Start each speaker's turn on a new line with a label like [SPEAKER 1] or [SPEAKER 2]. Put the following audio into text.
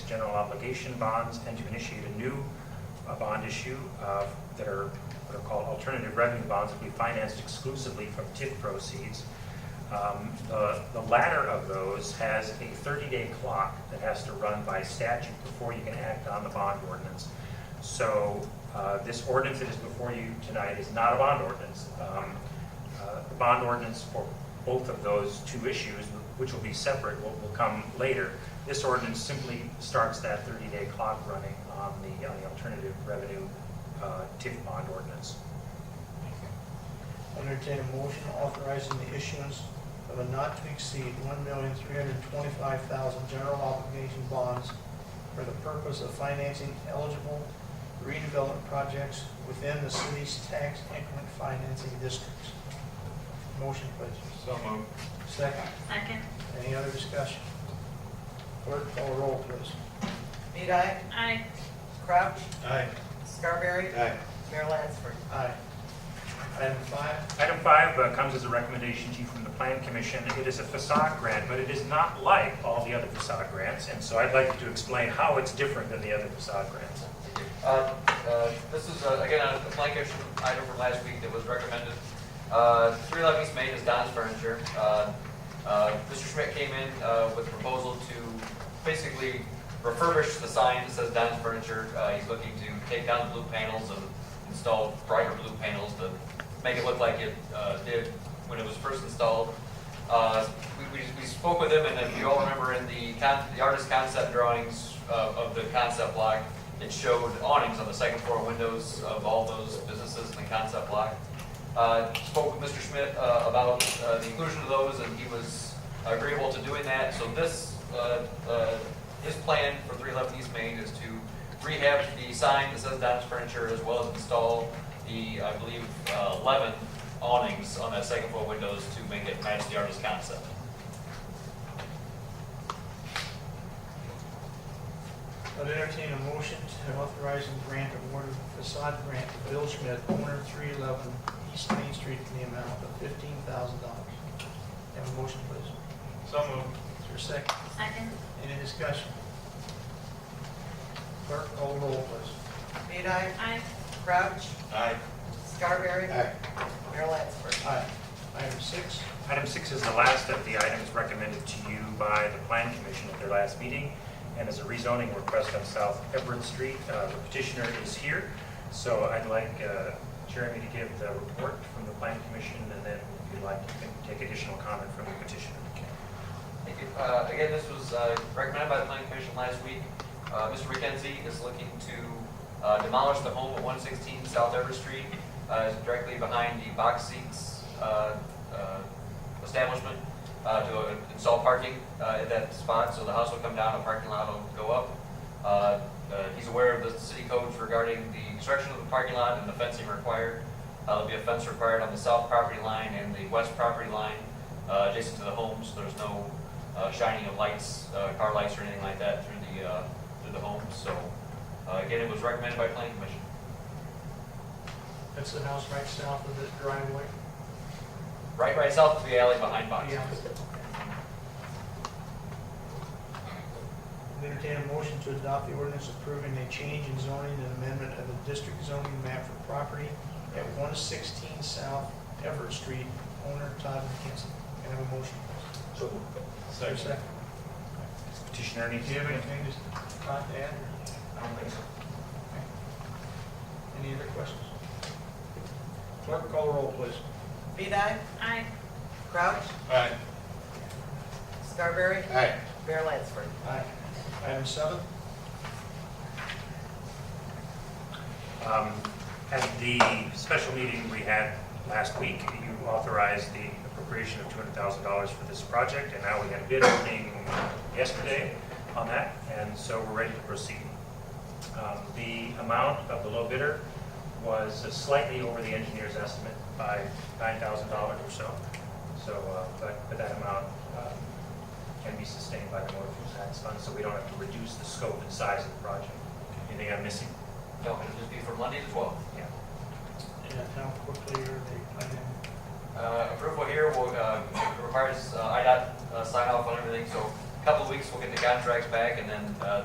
[SPEAKER 1] general obligation bonds and to initiate a new uh, bond issue uh, that are, what are called alternative revenue bonds that we financed exclusively from TIF proceeds. Um, The the latter of those has a 30-day clock that has to run by statute before you can act on the bond ordinance. So uh, this ordinance that is before you tonight is not a bond ordinance. Um, uh, The bond ordinance for both of those two issues, which will be separate, will will come later. This ordinance simply starts that 30-day clock running on the on the alternative revenue uh, TIF bond ordinance.
[SPEAKER 2] I'll entertain a motion authorizing the issuance of a not to exceed one million three hundred twenty-five thousand general obligation bonds for the purpose of financing eligible redevelopment projects within the city's tax increment financing districts. Motion, please.
[SPEAKER 3] So moved.
[SPEAKER 2] Second.
[SPEAKER 4] Second.
[SPEAKER 2] Any other discussion? Clerk, call roll, please.
[SPEAKER 5] Medai,
[SPEAKER 4] Aye.
[SPEAKER 5] Crouch,
[SPEAKER 3] Aye.
[SPEAKER 5] Scarberry,
[SPEAKER 3] Aye.
[SPEAKER 5] Mayor Lansford.
[SPEAKER 2] Aye. Item five,
[SPEAKER 1] Item five uh, comes as a recommendation to you from the Plan Commission. It is a facade grant, but it is not like all the other facade grants, and so I'd like to explain how it's different than the other facade grants.
[SPEAKER 6] Uh, uh, This is, uh, again, a blank issue item from last week that was recommended. Uh, 311 East Main is Don's Furniture. Uh, uh, Mr. Schmidt came in uh, with a proposal to basically refurbish the sign that says Don's Furniture. Uh, He's looking to take down the blue panels and install brighter blue panels to make it look like it uh, did when it was first installed. Uh, we- We we spoke with him, and if you all remember in the con- the artist concept drawings uh, of the concept block, it showed awnings on the second floor windows of all those businesses in the concept block. Uh, Spoke with Mr. Schmidt uh, about uh, the inclusion of those, and he was agreeable to doing that. So this, uh, uh, his plan for 311 East Main is to rehab the sign that says Don's Furniture, as well as install the, I believe, uh, 11 awnings on that second floor windows to make it match the artist concept.
[SPEAKER 2] I'd entertain a motion to authorize and grant award of facade grant to Bill Schmidt, owner of 311 East Main Street, in the amount of $15,000. Have a motion, please.
[SPEAKER 3] So moved.
[SPEAKER 2] Is there a second?
[SPEAKER 4] Second.
[SPEAKER 2] Any discussion? Clerk, call the roll, please.
[SPEAKER 5] Medai,
[SPEAKER 4] Aye.
[SPEAKER 5] Crouch,
[SPEAKER 3] Aye.
[SPEAKER 5] Scarberry,
[SPEAKER 3] Aye.
[SPEAKER 5] Mayor Lansford.
[SPEAKER 2] Aye. Item six,
[SPEAKER 1] Item six is the last of the items recommended to you by the Plan Commission at their last meeting, and is a rezoning request on South Everett Street. Uh, The petitioner is here, so I'd like uh, Jeremy to give the report from the Plan Commission, and then if you'd like, you can take additional comment from the petitioner.
[SPEAKER 6] Thank you. Uh, Again, this was uh, recommended by the planning commission last week. Uh, Mr. McKenzie is looking to uh, demolish the home at 116 South Everett Street, uh, it's directly behind the box seats uh, uh, establishment, uh, to install parking uh, at that spot, so the house will come down, the parking lot will go up. Uh, uh, He's aware of the city codes regarding the construction of the parking lot and the fencing required. Uh, There'll be a fence required on the south property line and the west property line uh, adjacent to the homes. There's no uh, shining of lights, uh, car lights or anything like that through the, uh, through the homes. So uh, again, it was recommended by planning commission.
[SPEAKER 2] that's the house right south of the driveway.
[SPEAKER 6] Right, right south of the alley behind Boxes.
[SPEAKER 2] Yeah. I'd Entertain a motion to adopt the ordinance approving a change in zoning and amendment of the district zoning map for property at 116 South Everett Street, owner Todd McKinsey. Can I have a motion?
[SPEAKER 3] So
[SPEAKER 2] Is there a
[SPEAKER 3] Second.
[SPEAKER 1] Does the Petitioner need
[SPEAKER 2] Do
[SPEAKER 1] to
[SPEAKER 2] you
[SPEAKER 1] give
[SPEAKER 2] have
[SPEAKER 1] it?
[SPEAKER 2] anything to Todd to add?
[SPEAKER 1] I don't think so.
[SPEAKER 2] Any other questions? Clerk, call the roll, please.
[SPEAKER 5] Medai,
[SPEAKER 4] Aye.
[SPEAKER 5] Crouch,
[SPEAKER 3] Aye.
[SPEAKER 5] Scarberry,
[SPEAKER 3] Aye.
[SPEAKER 5] Mayor Lansford.
[SPEAKER 2] Aye. Item seven,
[SPEAKER 1] Um, At the special meeting we had last week, you authorized the appropriation of $200,000 for this project, and now we had a bid opening yesterday on that, and so we're ready to proceed. Um, The amount of the low bidder was slightly over the engineer's estimate by $9,000 or so, so, uh, but but that amount uh, can be sustained by the motor fuel tax fund, so we don't have to reduce the scope and size of the project. Anything I'm missing?
[SPEAKER 6] No, it'll just be from Monday to 12.
[SPEAKER 1] Yeah.
[SPEAKER 2] and how quickly are they planning?
[SPEAKER 6] Uh, Approval here will, uh, requires uh, IDOT uh, sign off on everything, so a couple of weeks, we'll get the contracts back and then uh,